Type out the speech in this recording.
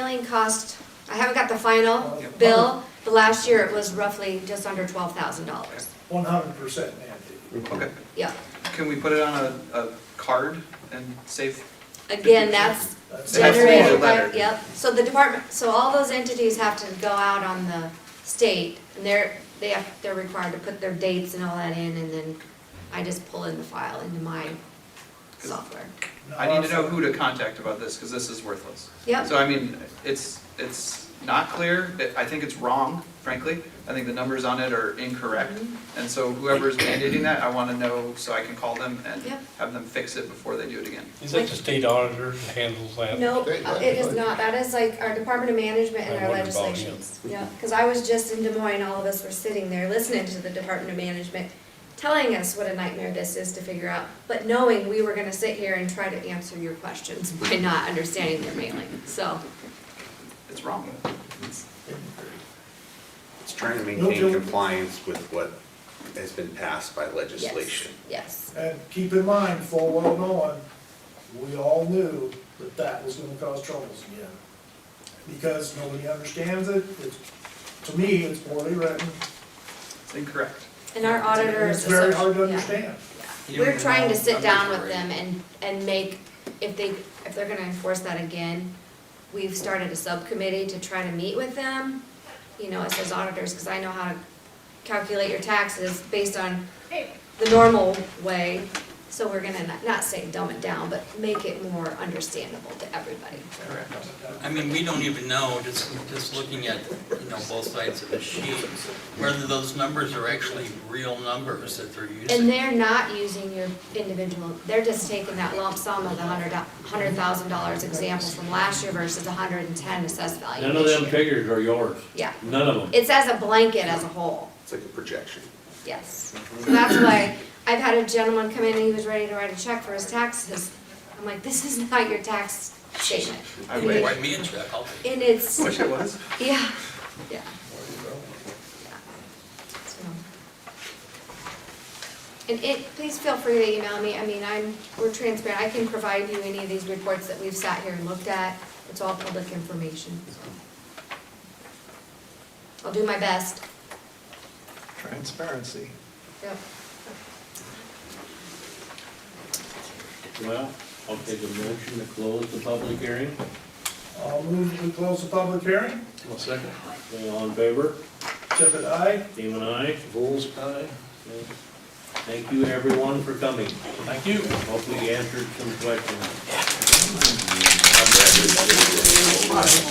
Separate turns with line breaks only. milling cost, I haven't got the final bill, but last year it was roughly just under twelve thousand dollars.
One hundred percent mandated.
Okay,
Yeah,
can we put it on a, a card and save?
again, that's
That's-
That's the
generated by,
letter.
yep, so the department, so all those entities have to go out on the state, and they're, they have, they're required to put their dates and all that in, and then I just pull in the file into my software.
I need to know who to contact about this, because this is worthless.
Yep,
So I mean, it's, it's not clear, It- I think it's wrong, frankly, I think the numbers on it are incorrect.
Mm-hmm.
And so whoever's mandating that, I want to know so I can call them and
Yep.
have them fix it before they do it again.
Is that the state auditor that handles that?
no,
State
uh, it is
legislature.
not, that is like our Department of Management and
I
our
wondered about him.
legislations. Yeah, cause I was just in Des Moines, all of us were sitting there listening to the Department of Management, telling us what a nightmare this is to figure out, but knowing we were gonna sit here and try to answer your questions by not understanding their mailing, so.
It's wrong.
It's trying to
No,
maintain
Joe.
compliance with what has been passed by
Yes,
legislation.
Yes,
And keep in mind, full well knowing, we all knew that that was gonna cause troubles again. Because nobody understands it, it's, to me, it's poorly written.
It's incorrect.
and our auditor is.
It's very hard to
yeah,
understand.
yeah. We're trying to sit down with them and, and make, if they, if they're gonna enforce that again, we've started a subcommittee to try to meet with them, you know, as those auditors, because I know how to calculate your taxes based on the normal way. So we're gonna not, not say dumb it down, but make it more understandable to everybody.
Correct.
I mean, we don't even know, just, just looking at, you know, both sides of the sheet, whether those numbers are actually real numbers that they're
And
using.
they're not using your individual, they're just taking that lump sum of the hundred, hundred thousand dollars example from last year versus a hundred and ten assessed value
None of
this
them
year.
figures are yours,
Yeah,
none of them.
it's as a blanket as a whole,
It's like a projection.
yes. So that's why, I've had a gentleman come in and he was ready to write a check for his taxes. I'm like, this is not your tax statement.
I
You can
wish,
write me a check, I'll pay.
And it's,
wish it was.
yeah, yeah. So. And it, please feel free to email me, I mean, I'm, we're transparent, I can provide you any of these reports that we've sat here and looked at, it's all public information, so. I'll do my best,
Transparency.
yep.
Well, I'll take a motion to close the public hearing.
I'll move to close the public hearing.
All in favor?
Tippit, aye.
Team and I. Bulls aye. Thank you, everyone, for coming.
Thank you.
Hope we answered some questions.